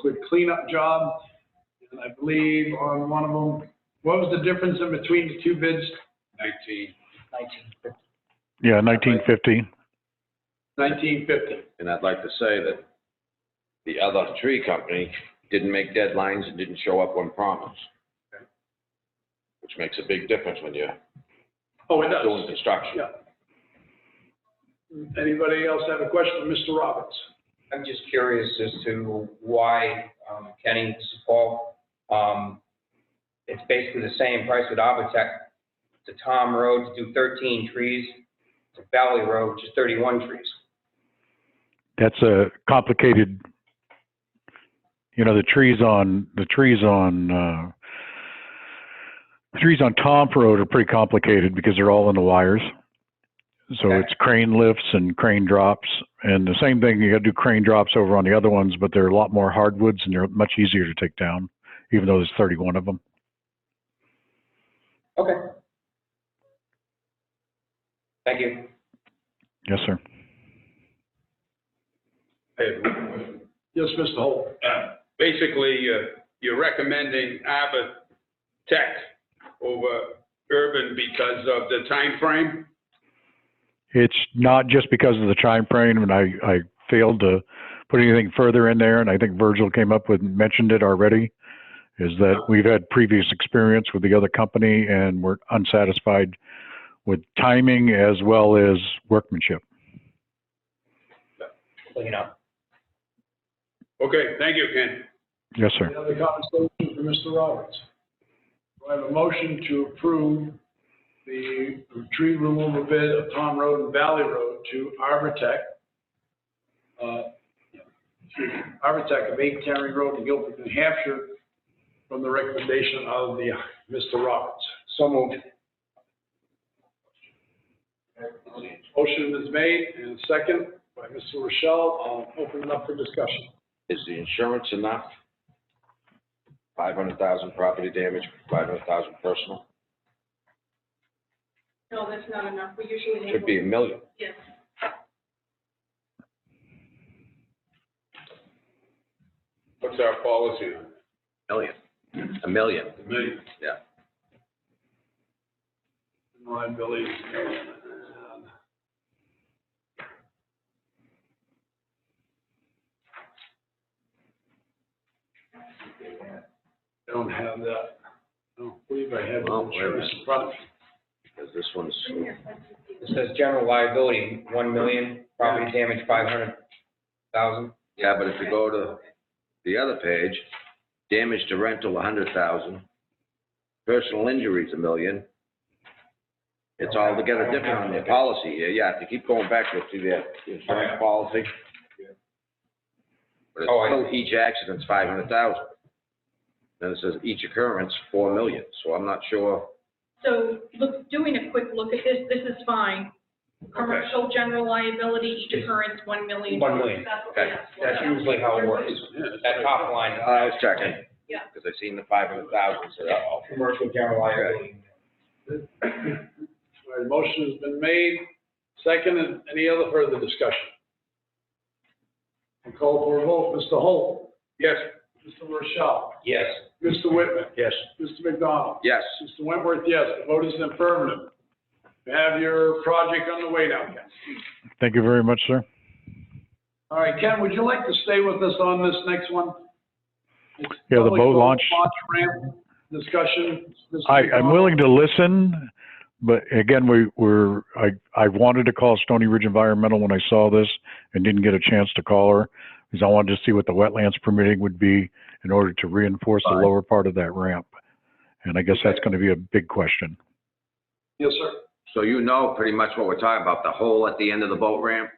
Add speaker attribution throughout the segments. Speaker 1: quick cleanup job. And I believe on one of them, what was the difference in between the two bids?
Speaker 2: nineteen,
Speaker 3: Yeah, nineteen fifty.
Speaker 1: Nineteen fifty.
Speaker 2: and I'd like to say that the other tree company didn't make deadlines and didn't show up when promised. Which makes a big difference when you're
Speaker 1: Oh, it
Speaker 2: doing
Speaker 1: does.
Speaker 2: construction.
Speaker 1: Yeah. Anybody else have a question for Mr. Roberts?
Speaker 4: I'm just curious as to why um, Kenny Sepul, um, it's basically the same price with Avatech to Tom Road to do 13 trees, to Valley Road, just 31 trees.
Speaker 3: That's a complicated, you know, the trees on, the trees on, uh, the trees on Tom Road are pretty complicated because they're all in the wires. So
Speaker 4: Okay.
Speaker 3: it's crane lifts and crane drops and the same thing, you gotta do crane drops over on the other ones, but they're a lot more hardwoods and they're much easier to take down, even though there's thirty-one of them.
Speaker 4: Okay. Thank you.
Speaker 3: Yes, sir.
Speaker 5: I have one question.
Speaker 1: Yes, Mr. Holt.
Speaker 5: Uh, Basically, uh, you're recommending Arbor Tech over Urban because of the time frame.
Speaker 3: It's not just because of the time frame, and I, I failed to put anything further in there, and I think Virgil came up with, mentioned it already, is that we've had previous experience with the other company and we're unsatisfied with timing as well as workmanship.
Speaker 4: Clean up.
Speaker 5: Okay, thank you, Ken.
Speaker 3: Yes, sir.
Speaker 1: Any other comments for Mr. Roberts? Do I have a motion to approve the tree removal bid of Tom Road and Valley Road to Arbortech? uh, excuse me, Arbortech of Eight County Road in Guilford, New Hampshire, from the recommendation of the, Mr. Roberts.
Speaker 4: So moved.
Speaker 1: Motion is made and second by Mr. Rochelle. I'll open it up for discussion.
Speaker 2: Is the insurance enough? Five hundred thousand property damage, five hundred thousand personal,
Speaker 6: No, that's not enough. We usually.
Speaker 2: should be a million.
Speaker 6: Yes.
Speaker 5: What's our policy?
Speaker 2: Million. A million.
Speaker 5: A million.
Speaker 2: Yeah.
Speaker 1: Liability. Don't have that. I don't believe I have
Speaker 2: Well, wait a
Speaker 1: insurance in front of me.
Speaker 2: Because this one's,
Speaker 4: It says general liability, 1 million, property damage, 500,000.
Speaker 2: yeah, but if you go to the other page, damage to rental, a hundred thousand, personal injuries, a million. It's altogether different on your policy here, yeah, if you keep going back, you'll see the insurance policy. But
Speaker 4: Oh, I-
Speaker 2: it's still each accident's five hundred thousand. Then it says each occurrence, four million, so I'm not sure,
Speaker 6: So look, doing a quick look at this, this is fine. Commercial general liability, each occurrence, one million.
Speaker 4: One million.
Speaker 6: That's what we
Speaker 2: Okay.
Speaker 6: asked for.
Speaker 4: That's usually how it works. That top line,
Speaker 2: I was checking.
Speaker 6: Yeah.
Speaker 2: Because I seen the five hundred thousand, so, oh,
Speaker 4: commercial general liability.
Speaker 1: All right, motion has been made, second, and any other further discussion? And call for a vote, Mr. Holt,
Speaker 5: Yes,
Speaker 1: Mr. Rochelle,
Speaker 4: Yes.
Speaker 1: Mr. Whitman,
Speaker 4: Yes.
Speaker 1: Mr. McDonald.
Speaker 2: yes,
Speaker 1: Mr. Wentworth, yes, the vote is affirmative. You have your project on the way now, Ken.
Speaker 3: Thank you very much, sir.
Speaker 1: All right, Ken, would you like to stay with us on this next one? It's
Speaker 3: Yeah, the
Speaker 1: public
Speaker 3: boat launch.
Speaker 1: Launch ramp discussion. Mr.
Speaker 3: I, I'm
Speaker 1: McDonald.
Speaker 3: willing to listen, but again, we were, I, I wanted to call Stony Ridge Environmental when I saw this and didn't get a chance to call her because I wanted to see what the wetlands permitting would be in order to reinforce the lower part of that ramp. And I guess that's going to be a big question.
Speaker 1: Yes, sir.
Speaker 2: so you know pretty much what we're talking about, the hole at the end of the boat ramp?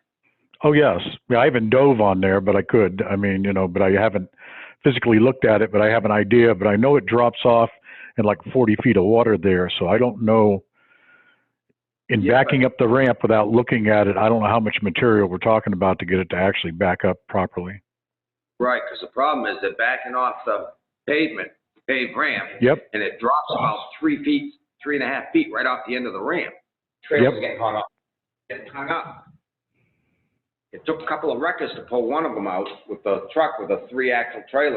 Speaker 3: Oh, yes. Yeah, I haven't dove on there, but I could. I mean, you know, but I haven't physically looked at it, but I have an idea, but I know it drops off in like 40 feet of water there. So I don't know. In
Speaker 2: Yeah, but-
Speaker 3: backing up the ramp without looking at it, I don't know how much material we're talking about to get it to actually back up properly.
Speaker 2: Right, because the problem is they're backing off the pavement, paved ramp,
Speaker 3: Yep.
Speaker 2: and it drops about three feet, three and a half feet right off the end of the ramp.
Speaker 4: Trail's getting hung up.
Speaker 2: It's hung up. It took a couple of wreckers to pull one of them out with the truck with a three-axle trailer